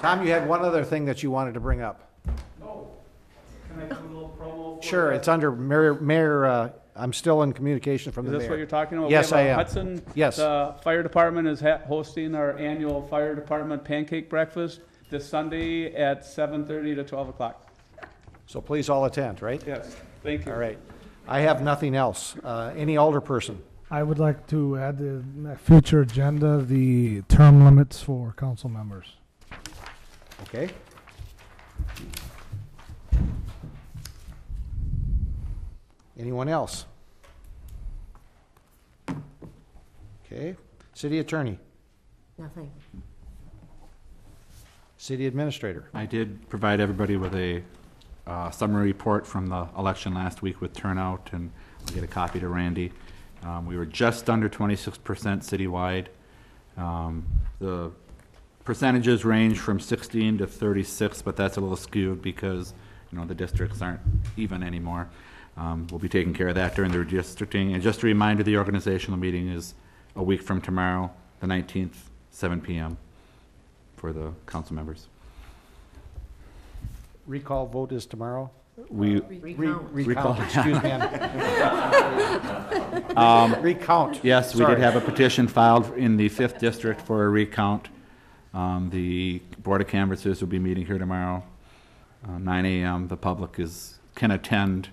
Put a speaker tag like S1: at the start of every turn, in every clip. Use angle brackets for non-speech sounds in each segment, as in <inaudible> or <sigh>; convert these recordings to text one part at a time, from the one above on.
S1: Tom, you had one other thing that you wanted to bring up.
S2: Oh, can I do a little promo? for
S1: Sure,
S2: that?
S1: it's under Mayor, Mayor, uh, I'm still in communication from
S2: Is
S1: the
S2: this what
S1: mayor.
S2: you're talking about?
S1: Yes,
S2: We have
S1: I
S2: a
S1: am.
S2: Hudson.
S1: Yes.
S2: The fire department is ha- hosting our annual fire department pancake breakfast this Sunday at seven thirty to twelve o'clock.
S1: So please all attend, right?
S2: Yes, thank you.
S1: All right. I have nothing else. Uh, Any alder person?
S3: I would like to add to the uh, future agenda, the term limits for council members.
S1: Okay. Anyone else? Okay. City attorney,
S4: Nothing.
S1: city administrator.
S5: I did provide everybody with a uh, summary report from the election last week with turnout, and I'll get a copy to Randy. Um, We were just under twenty-six percent citywide. Um, The percentages range from sixteen to thirty-six, but that's a little skewed because, you know, the districts aren't even anymore. Um, We'll be taking care of that during the redistricting. And just a reminder, the organizational meeting is a week from tomorrow, the nineteenth, seven PM for the council members.
S1: Recall vote is tomorrow?
S5: We,
S1: Re-
S4: Recount.
S1: Recount,
S5: Recall.
S1: excuse Um, me. <laughs> I'm- Recount.
S5: Yes, we did
S1: Sorry.
S5: have a petition filed in the 5th District for a recount. Um, The Board of Canvassers will be meeting here tomorrow, uh, 9 AM. The public is, can attend.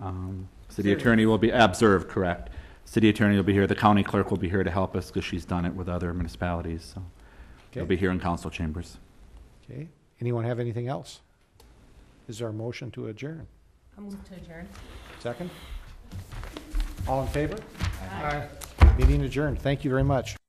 S5: Um, City Attorney will be, observed, correct. City Attorney will be here, the county clerk will be here to help us because she's done it with other municipalities, so. They'll
S1: Okay.
S5: be here in council chambers.
S1: Okay, anyone have anything else? Is there a motion to adjourn?
S4: I'll move to adjourn.
S1: Second? All in favor? Aye. Meeting adjourned, thank you very much.